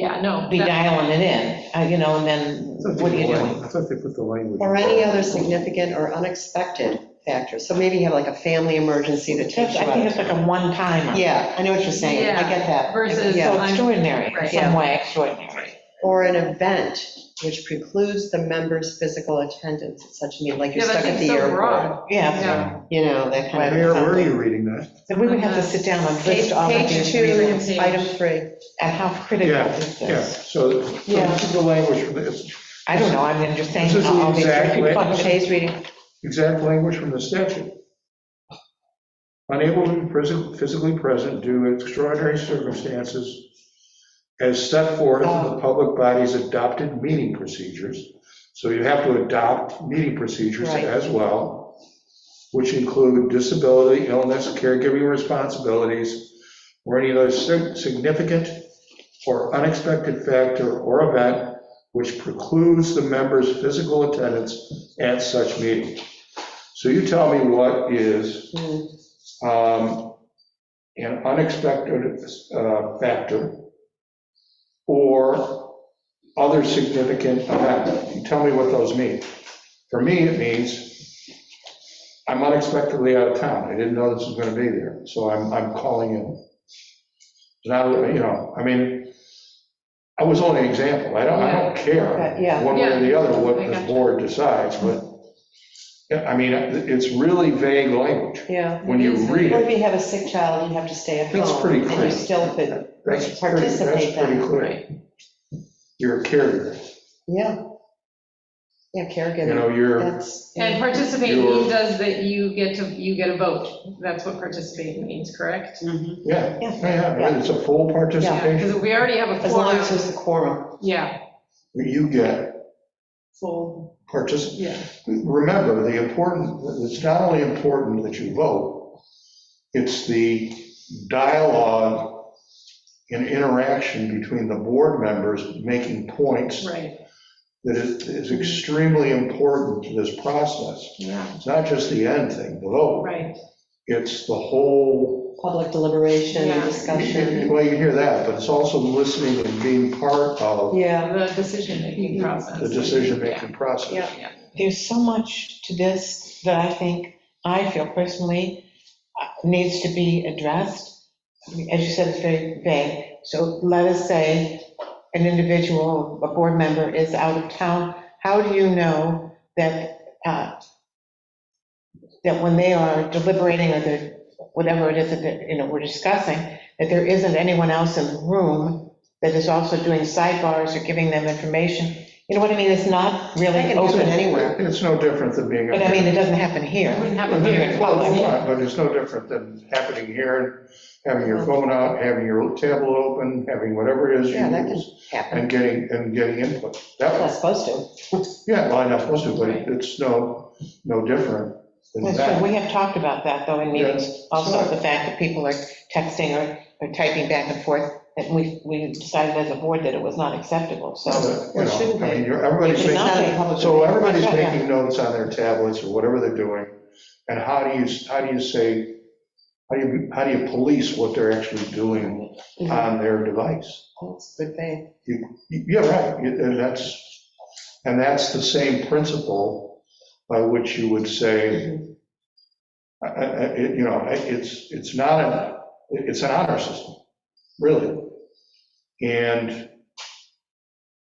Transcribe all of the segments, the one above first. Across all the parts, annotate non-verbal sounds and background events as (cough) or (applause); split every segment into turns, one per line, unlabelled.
Yeah, no.
be
that-
dialing it in, uh, you know, and then what are you doing?
I thought they put the language.
Or any other significant or unexpected factors. So maybe you have like a family emergency that
That's-
takes you
I think
out.
it's like a one-timer.
Yeah, I know what you're saying. I get that.
Versus
Yeah.
So
I'm-
extraordinary, in
Right.
some way extraordinary.
Or an event which precludes the member's physical attendance at such a meeting, like you're
Yeah, that
stuck at the
seems so
airport.
wrong.
Yeah,
Yeah.
You know, that kind of.
Where were
something.
you reading that?
so we would have to sit down and
Page
list all of
page
these
two,
reasons,
Page.
item three.
and how critical
Yeah,
is
yeah,
this?
so so
Yeah.
this is the language, from the-
I don't know, I mean, I'm just oh, saying,
This is the
all these
exact
different
way-
functions.
Today's reading.
exact language from the statute. Unable to be present, physically present due to extraordinary circumstances as set forth in the public body's adopted meeting procedures. So you have to adopt meeting procedures
Right.
as well, which include disability, illness, caregiving responsibilities, or any other sig- significant or unexpected factor or event which precludes the member's physical attendance at such meeting. So you tell me what is
Hmm.
um, an unexpected uh, factor or other significant event. You tell me what those mean. For me, it means I'm unexpectedly out of town. I didn't know this was going to be there, so I'm, I'm calling in. Now, you know, I mean, I was only an example. I don't, I don't care
Okay, yeah.
one way or the other what
Yeah.
this board decides, but, yeah, I mean, it's really vague language
Yeah.
when you
It is.
read
Or
it.
if you have a sick child, you have to stay at home.
That's pretty
And
clear.
you still could,
That's pretty, that's
Participate then,
pretty clear.
Right.
You're a carrier,
yeah. Yeah,
you
caregiving,
know, you're,
that's.
And participate
You're-
means does that you get to, you get a vote. That's what participate means, correct?
Mhm.
yeah,
Yeah.
yeah, yeah, it's a full
Because
participation.
we already have a
As long
forum,
as there's a quorum.
yeah,
You get
full,
participation.
yeah.
Remember, the important, it's not only important that you vote, it's the dialogue and interaction between the board members making points
Right,
that is is extremely important to this process.
yeah,
It's not just the end thing, the vote.
right.
It's the whole,
Public deliberation and
Yeah.
well, (laughs)
discussion.
you hear that, but it's also listening and being part of
Yeah.
The decision-making process.
the decision-making process.
Yeah.
There's so much to this that I think, I feel personally, uh, needs to be addressed. As you said, it's very vague, so let us say an individual, a board member is out of town, how do you know that, uh, that when they are deliberating or they're, whatever it is that, they're- you know, we're discussing, that there isn't anyone else in the room that is also doing sidebars or giving them information? You know what I mean? It's not
They
really
can do it
open.
anywhere.
It's no different than being.
But I mean, it doesn't happen here.
It wouldn't happen here.
Well, it's not, But it's no different than happening here, having your phone out, having your tablet open, having whatever it is you
Yeah, that can
use,
happen.
and getting, and getting input. That
Not
was,
supposed to.
yeah, well, I'm not supposed to, but it's no, no different than
That's
that.
true. We have talked about that, though, in meetings, also, the fact that people are texting or or typing back and forth, and we, we decided as a board that it was not acceptable, so.
So,
Well, it
you
shouldn't
know, I
be.
mean, you're- everybody's
It should
making-
not be.
So everybody's
Yeah, yeah.
making notes on their tablets or whatever they're doing, and how do you, how do you say, how do you, how do you police what they're actually doing on their device?
That's good thing.
Yeah, right, you- and that's, and that's the same principle by which you would say, I- I- I- it- you know, I- it's, it's not an, it's an honor system, really. And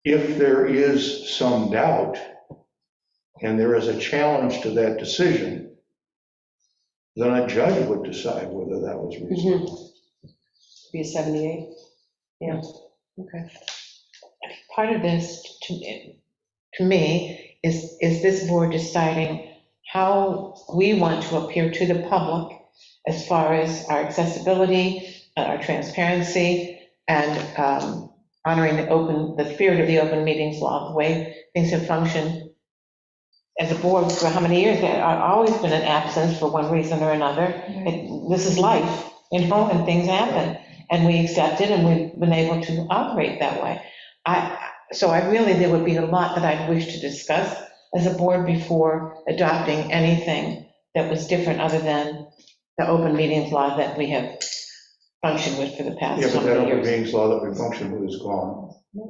if there is some doubt, and there is a challenge to that decision, then a judge would decide whether that was reasonable.
Be a 78? Yeah. Okay.
Part of this, to, to me, is, is this board deciding how we want to appear to the public as far as our accessibility, uh, our transparency, and um, honoring the open, the spirit of the open meetings law, the way things have functioned as a board for how many years, there have always been an absence for one reason or another. It- This is life, you know, and things happen, and we accept it, and we've been able to operate that way. I, so I really, there would be a lot that I'd wish to discuss as a board before adopting anything that was different other than the open meetings law that we have functioned with for the past
Yeah, but
number
that
of
open
years.
meetings law that we function with is gone.